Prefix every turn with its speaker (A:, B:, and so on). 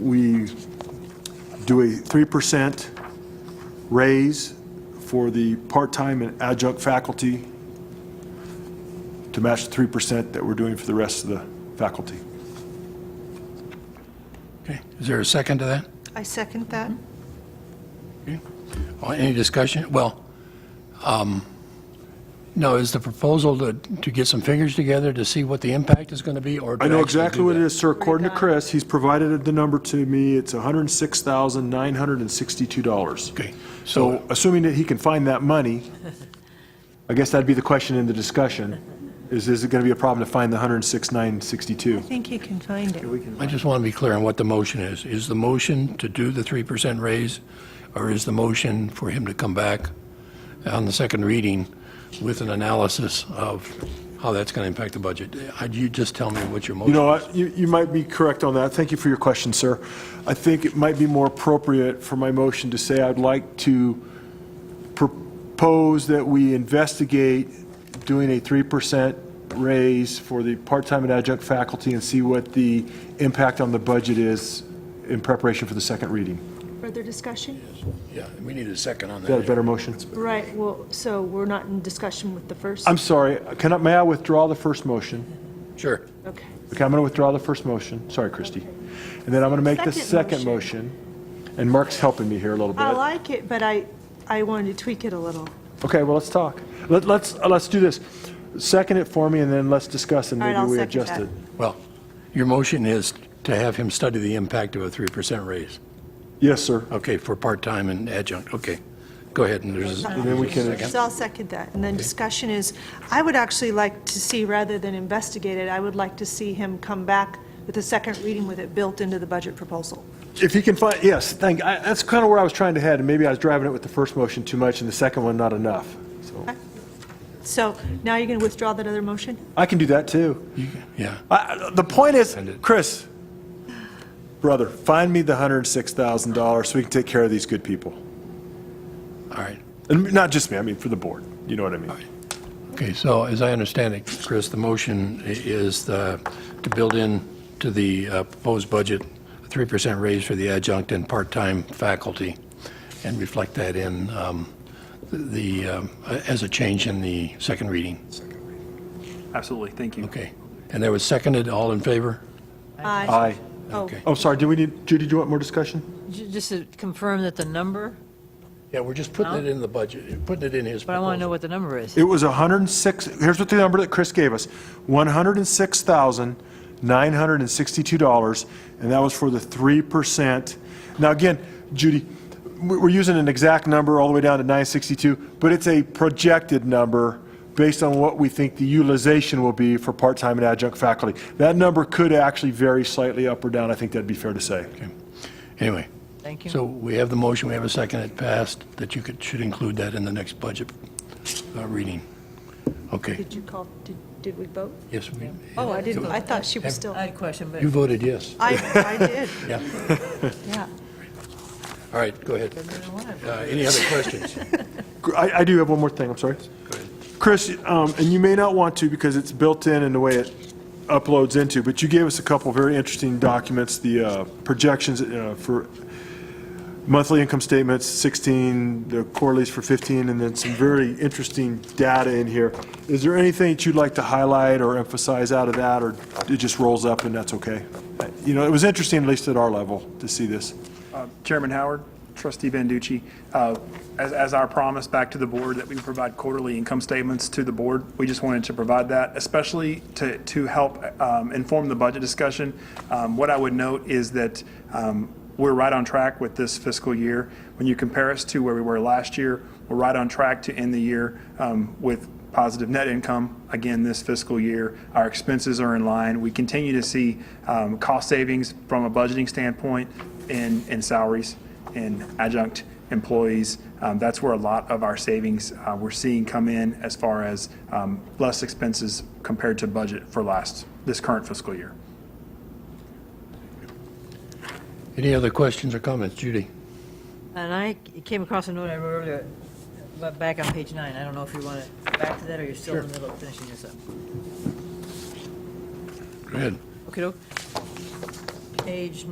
A: we do a 3% raise for the part-time and adjunct faculty to match the 3% that we're doing for the rest of the faculty.
B: Okay, is there a second to that?
C: I second that.
B: Okay. Uh, Any discussion? Well, um, no, is the proposal to, to get some figures together to see what the impact is going to be, or? to
A: I know
B: actually
A: exactly
B: do
A: what it
B: that?
A: is, sir. According to Chris, he's provided the number to me. It's $106,962.
B: Okay,
A: So
B: so,
A: assuming that he can find that money, I guess that'd be the question in the discussion, is, is it going to be a problem to find the 106,962?
C: I think you can find it.
B: I just want to be clear on what the motion is. Is the motion to do the 3% raise, or is the motion for him to come back on the second reading with an analysis of how that's going to impact the budget? Uh, You just tell me what your
A: You
B: motion
A: know, what? you, you might be correct on that. Thank you for your question, sir. I think it might be more appropriate for my motion to say I'd like to propose that we investigate doing a 3% raise for the part-time and adjunct faculty and see what the impact on the budget is in preparation for the second reading.
D: Further discussion?
B: Yeah, we need a second on
A: Is that a
B: that.
A: better motion?
D: Right, well, so we're not in discussion with the first?
A: I'm sorry, can I, may I withdraw the first motion?
B: Sure.
D: Okay.
A: Okay, I'm going to withdraw the first motion. Sorry, Christie. And then I'm going to make the
D: Second
A: second motion, and Mark's helping me here a little bit.
D: I like it, but I, I wanted to tweak it a little.
A: Okay, well, let's talk. Let- Let's, uh, let's do this. Second it for me, and then let's discuss, and
D: All right,
A: maybe
D: I'll
A: we
D: second
A: adjust
D: that.
A: it.
B: Well, your motion is to have him study the impact of a 3% raise.
A: Yes, sir.
B: Okay, for part-time and adjunct, okay. Go ahead, and there's,
A: And then we can,
D: So I'll second that. And then discussion is, I would actually like to see, rather than investigate it, I would like to see him come back with a second reading with it built into the budget proposal.
A: if you can find, yes, thank, I- that's kind of where I was trying to head, and maybe I was driving it with the first motion too much and the second one not enough. So
D: So now you're going to withdraw that other motion?
A: I can do that, too.
B: yeah.
A: I- The point is, Chris, brother, find me the $106,000 so we can take care of these good people.
B: All right.
A: And not just me, I mean, for the board, you know what I mean?
B: Okay, so as I understand it, Chris, the motion i- is the- to build in to the uh, proposed budget, a 3% raise for the adjunct and part-time faculty, and reflect that in um, the, um, a- as a change in the second reading.
E: Absolutely, thank you.
B: Okay. And that was seconded, all in favor?
D: Aye.
A: Aye.
D: Oh,
B: Okay.
A: Oh, sorry, do we need, Judy, do you want more discussion?
F: Ju- Just to confirm that the number,
B: Yeah, we're just putting it in the budget, putting it in his
F: but I want to
B: proposal.
F: know what the number is.
A: It was 106, here's what the number that Chris gave us, $106,962, and that was for the 3%. Now, again, Judy, we- we're using an exact number all the way down to 962, but it's a projected number based on what we think the utilization will be for part-time and adjunct faculty. That number could actually vary slightly up or down, I think that'd be fair to say.
B: Anyway,
F: Thank
B: so
F: you.
B: we have the motion, we have a second, it passed, that you could, should include that in the next budget uh, reading. Okay,
D: did you call, did, did we vote?
B: yes, we,
D: Oh, I didn't, I thought she was still,
F: I had a question, but
B: you voted yes.
D: I, I did,
B: Yeah,
D: yeah.
B: all right, go ahead. Uh, Any other questions?
A: Gr- I, I do have one more thing, I'm sorry. Chris, um, and you may not want to because it's built in in the way it uploads into, but you gave us a couple very interesting documents, the uh, projections uh, for monthly income statements, 16, the quarterlies for 15, and then some very interesting data in here. Is there anything that you'd like to highlight or emphasize out of that, or it just rolls up and that's okay? Uh, You know, it was interesting, at least at our level, to see this.
E: Uh, Chairman Howard, trustee Banducci, uh, as, as our promise back to the board that we provide quarterly income statements to the board, we just wanted to provide that, especially to, to help um, inform the budget discussion. Um, What I would note is that um, we're right on track with this fiscal year. When you compare us to where we were last year, we're right on track to end the year um, with positive net income again this fiscal year. Our expenses are in line. We continue to see um, cost savings from a budgeting standpoint in, in salaries and adjunct employees. Um, That's where a lot of our savings uh, we're seeing come in as far as um, less expenses compared to budget for last, this current fiscal year.
B: Any other questions or comments, Judy?
F: And I came across a note I wrote earlier, but back on page nine. I don't know if you want to go back to that or you're still in the middle of finishing this up.
B: Go ahead.
F: Okay, page